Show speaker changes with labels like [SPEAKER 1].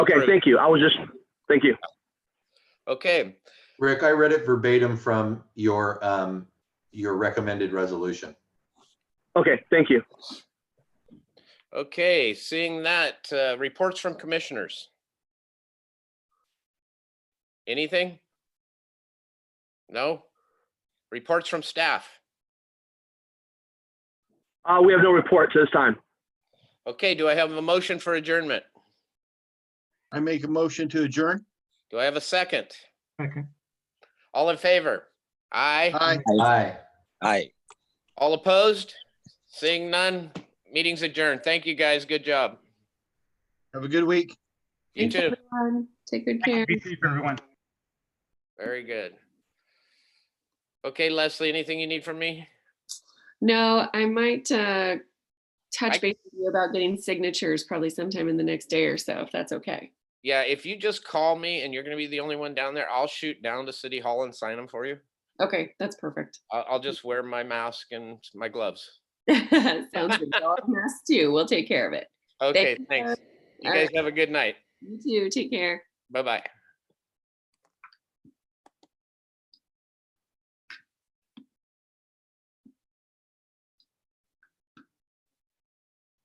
[SPEAKER 1] Okay,
[SPEAKER 2] Great.
[SPEAKER 1] thank you. I was just, thank you.
[SPEAKER 2] Okay,
[SPEAKER 3] Rick, I read it verbatim from your, um, your recommended resolution.
[SPEAKER 1] Okay, thank you.
[SPEAKER 2] okay, seeing that, uh, reports from commissioners. Anything? No? Reports from staff?
[SPEAKER 1] Uh, we have no reports this time.
[SPEAKER 2] Okay, do I have a motion for adjournment?
[SPEAKER 4] I make a motion to adjourn.
[SPEAKER 2] Do I have a second?
[SPEAKER 5] Second.
[SPEAKER 2] All in favor? Aye.
[SPEAKER 4] Aye.
[SPEAKER 3] Aye.
[SPEAKER 6] Aye.
[SPEAKER 2] All opposed? Seeing none, meeting's adjourned. Thank you, guys. Good job.
[SPEAKER 4] Have a good week.
[SPEAKER 2] You
[SPEAKER 7] Thanks,
[SPEAKER 2] too.
[SPEAKER 7] everyone. um, Take good care.
[SPEAKER 5] Be safe, everyone.
[SPEAKER 2] Very good. Okay, Leslie, anything you need from me?
[SPEAKER 7] No, I might uh,
[SPEAKER 2] I-
[SPEAKER 7] touch base with you about getting signatures probably sometime in the next day or so, if that's okay.
[SPEAKER 2] Yeah, if you just call me and you're gonna be the only one down there, I'll shoot down to City Hall and sign them for you.
[SPEAKER 7] Okay, that's perfect.
[SPEAKER 2] I'll, I'll just wear my mask and my gloves.
[SPEAKER 7] Sounds good. Y'all have masks too. We'll take care of it.
[SPEAKER 2] Okay,
[SPEAKER 7] you,
[SPEAKER 2] thanks.
[SPEAKER 7] guys.
[SPEAKER 2] You
[SPEAKER 7] All
[SPEAKER 2] guys
[SPEAKER 7] right.
[SPEAKER 2] have a good night.
[SPEAKER 7] You too. Take care.
[SPEAKER 2] Bye-bye.